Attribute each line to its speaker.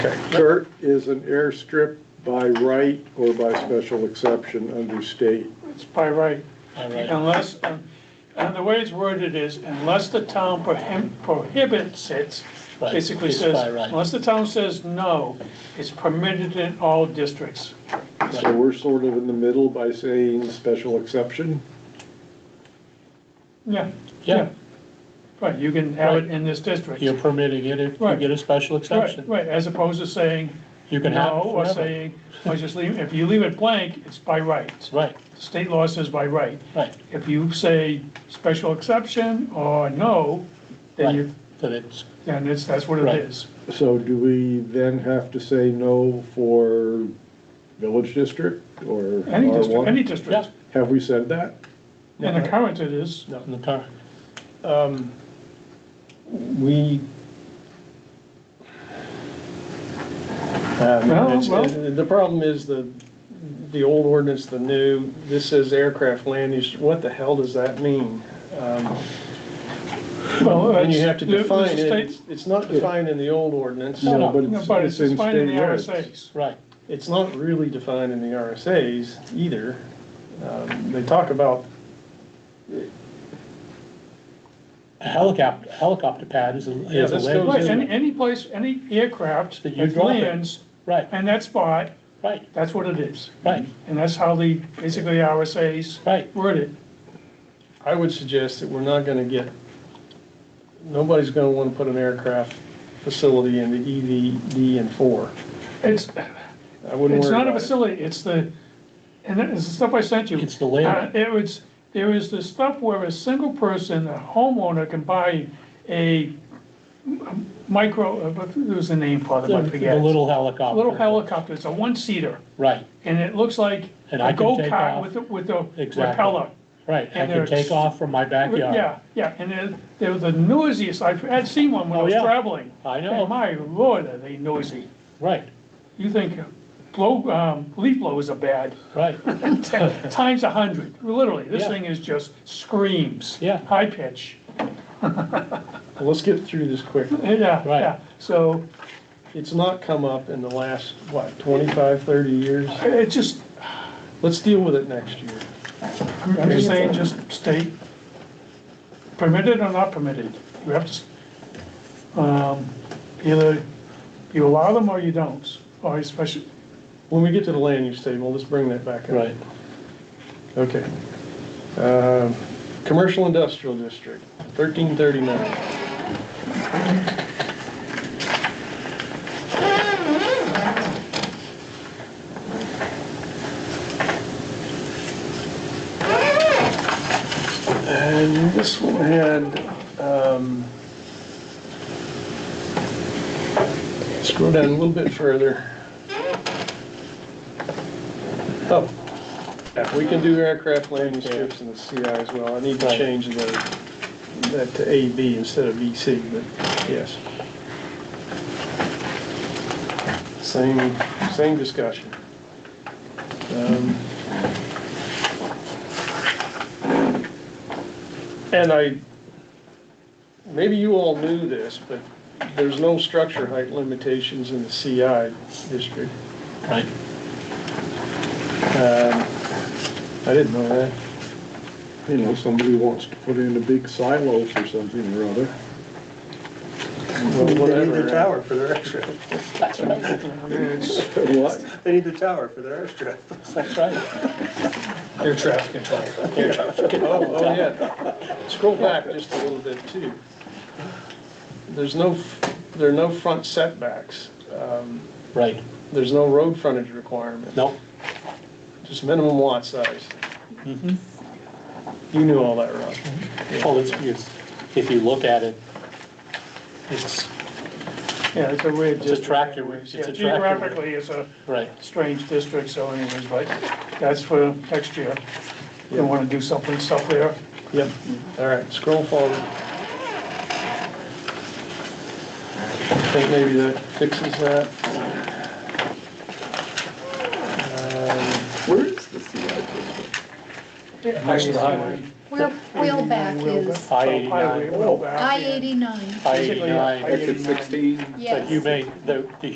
Speaker 1: CERT is an airstrip by right or by special exception under state.
Speaker 2: It's by right. Unless, um, and the way it's worded is, unless the town prohib- prohibits it,
Speaker 3: Right,
Speaker 2: basically
Speaker 3: it's
Speaker 2: says,
Speaker 3: by right.
Speaker 2: unless the town says no, it's permitted in all districts.
Speaker 1: So we're sort of in the middle by saying special exception.
Speaker 2: Yeah,
Speaker 3: Yeah,
Speaker 2: yeah. Right, you can have it in this district.
Speaker 3: you're permitting it if you
Speaker 2: Right.
Speaker 3: get a special
Speaker 2: Right,
Speaker 3: exception.
Speaker 2: right, as opposed to saying
Speaker 3: You can have
Speaker 2: no,
Speaker 3: it
Speaker 2: or
Speaker 3: forever.
Speaker 2: saying, or just leave, if you leave it blank, it's by right.
Speaker 3: Right,
Speaker 2: State law says by right.
Speaker 3: right,
Speaker 2: If you say special exception or no, then
Speaker 3: right,
Speaker 2: you,
Speaker 3: that it's,
Speaker 2: then it's, that's what it
Speaker 3: Right.
Speaker 2: is.
Speaker 1: So do we then have to say no for village district or
Speaker 2: Any district, any
Speaker 1: R1?
Speaker 2: district.
Speaker 3: yeah,
Speaker 1: Have we said that?
Speaker 2: In the current it is,
Speaker 3: not in the car.
Speaker 4: Um, We. Um,
Speaker 2: Well,
Speaker 4: it's-
Speaker 2: well-
Speaker 4: The the problem is the, the old ordinance, the new, this says aircraft land use, what the hell does that mean? Um,
Speaker 2: well.
Speaker 4: And you
Speaker 2: it's-
Speaker 4: have to
Speaker 2: the- the
Speaker 4: define it,
Speaker 2: state-
Speaker 4: It's- it's not defined in the old ordinance,
Speaker 3: No,
Speaker 1: No,
Speaker 3: no,
Speaker 1: but
Speaker 2: No,
Speaker 1: it's,
Speaker 2: but
Speaker 1: it's
Speaker 2: it's
Speaker 1: in
Speaker 2: defined in the
Speaker 1: state regs.
Speaker 2: RSA's.
Speaker 3: Right,
Speaker 4: it's not really defined in the RSA's either. Um, They talk about,
Speaker 3: a helicopter, helicopter pad is a,
Speaker 4: Yeah,
Speaker 3: is a
Speaker 4: this
Speaker 2: Right,
Speaker 4: goes
Speaker 3: land.
Speaker 2: any, any place, any aircraft
Speaker 3: That you
Speaker 2: that
Speaker 3: drop it.
Speaker 2: lands
Speaker 3: Right,
Speaker 2: in that spot,
Speaker 3: right,
Speaker 2: that's what it is.
Speaker 3: right,
Speaker 2: And that's how the, basically RSA's
Speaker 3: right,
Speaker 2: word it.
Speaker 4: I would suggest that we're not gonna get, nobody's gonna wanna put an aircraft facility in the EVD and four.
Speaker 2: It's,
Speaker 4: I wouldn't
Speaker 2: it's
Speaker 4: worry
Speaker 2: not a
Speaker 4: about it.
Speaker 2: facility, it's the, and it's the stuff I sent you.
Speaker 3: It's the land.
Speaker 2: Uh, It was, there is the stuff where a single person, a homeowner can buy a micro, uh, what was the name for them,
Speaker 3: the
Speaker 2: I
Speaker 3: the
Speaker 2: forget.
Speaker 3: little helicopter.
Speaker 2: Little helicopter, it's a one-seater.
Speaker 3: Right,
Speaker 2: and it looks like
Speaker 3: And
Speaker 2: a
Speaker 3: I can take
Speaker 2: go-kart
Speaker 3: off.
Speaker 2: with, a- with a
Speaker 3: Exactly.
Speaker 2: propeller.
Speaker 3: right, I
Speaker 2: And
Speaker 3: can
Speaker 2: there's-
Speaker 3: take off from my backyard.
Speaker 2: Yeah, yeah, and they're, they're the noisiest, I've, I'd seen one when I
Speaker 3: Oh,
Speaker 2: was
Speaker 3: yeah.
Speaker 2: traveling.
Speaker 3: I
Speaker 2: Oh,
Speaker 3: know,
Speaker 2: my lord, are they noisy.
Speaker 3: right,
Speaker 2: You think blow, um, leaf blowers are bad,
Speaker 3: right,
Speaker 2: Ten- times a hundred, literally, this
Speaker 3: Yeah.
Speaker 2: thing is just screams.
Speaker 3: Yeah.
Speaker 2: High pitch,
Speaker 4: Well, Let's get through this quick.
Speaker 2: yeah,
Speaker 3: Right.
Speaker 2: uh, yeah, so
Speaker 4: It's not come up in the last, what, 25, 30 years?
Speaker 2: it just,
Speaker 4: Let's deal with it next year.
Speaker 2: I'm I'm just saying, just state permitted or not permitted, you have to, s- um, either you allow them or you don't, or especially,
Speaker 4: When we get to the land use table, let's bring that back up.
Speaker 3: right.
Speaker 4: Okay. Um, Commercial industrial district, 1339. And this one had, um, scroll down a little bit further. Oh, yeah, we can do aircraft landing strips in the CI as well. I need to
Speaker 3: Right.
Speaker 4: change the, that to AB instead of BC, but yes. Same, same discussion. Um, And I, maybe you all knew this, but there's no structure height limitations in the CI district.
Speaker 3: Right,
Speaker 4: Um, I didn't know that.
Speaker 1: You know, somebody wants to put in a big silo for something or other.
Speaker 4: Well,
Speaker 5: They need
Speaker 4: whatever.
Speaker 5: the tower for their airstrip.
Speaker 2: it's,
Speaker 1: What?
Speaker 5: They need the tower for their airstrip.
Speaker 3: that's right,
Speaker 5: Air traffic control.
Speaker 4: Oh, oh, yeah. Scroll back just a little bit too. There's no, there are no front setbacks. Um,
Speaker 3: right,
Speaker 4: There's no road frontage requirement,
Speaker 3: no,
Speaker 4: just minimum lot size. Mm-hmm. You knew all that, Rob.
Speaker 3: well, it's, it's, if you look at it, it's,
Speaker 2: yeah, it's a weird
Speaker 3: It's a
Speaker 2: district.
Speaker 3: tractor-
Speaker 2: anyways.
Speaker 3: it's
Speaker 2: Yeah,
Speaker 3: a tractor route.
Speaker 2: Geographically, it's a
Speaker 3: right,
Speaker 2: strange district, so anyways, but that's for next year. You wanna do something, stuff there,
Speaker 4: Yep. All right, scroll forward. I think maybe that fixes that. Um,
Speaker 5: Where is the CI
Speaker 2: next to the highway.
Speaker 6: Where wheelback is
Speaker 3: I E
Speaker 2: Highway,
Speaker 3: eighty-nine,
Speaker 2: well, back, yeah.
Speaker 6: I eighty-nine,
Speaker 3: I
Speaker 2: Basically, yeah,
Speaker 3: eighty-nine.
Speaker 2: I-89.
Speaker 6: yes.
Speaker 3: But you may, the, the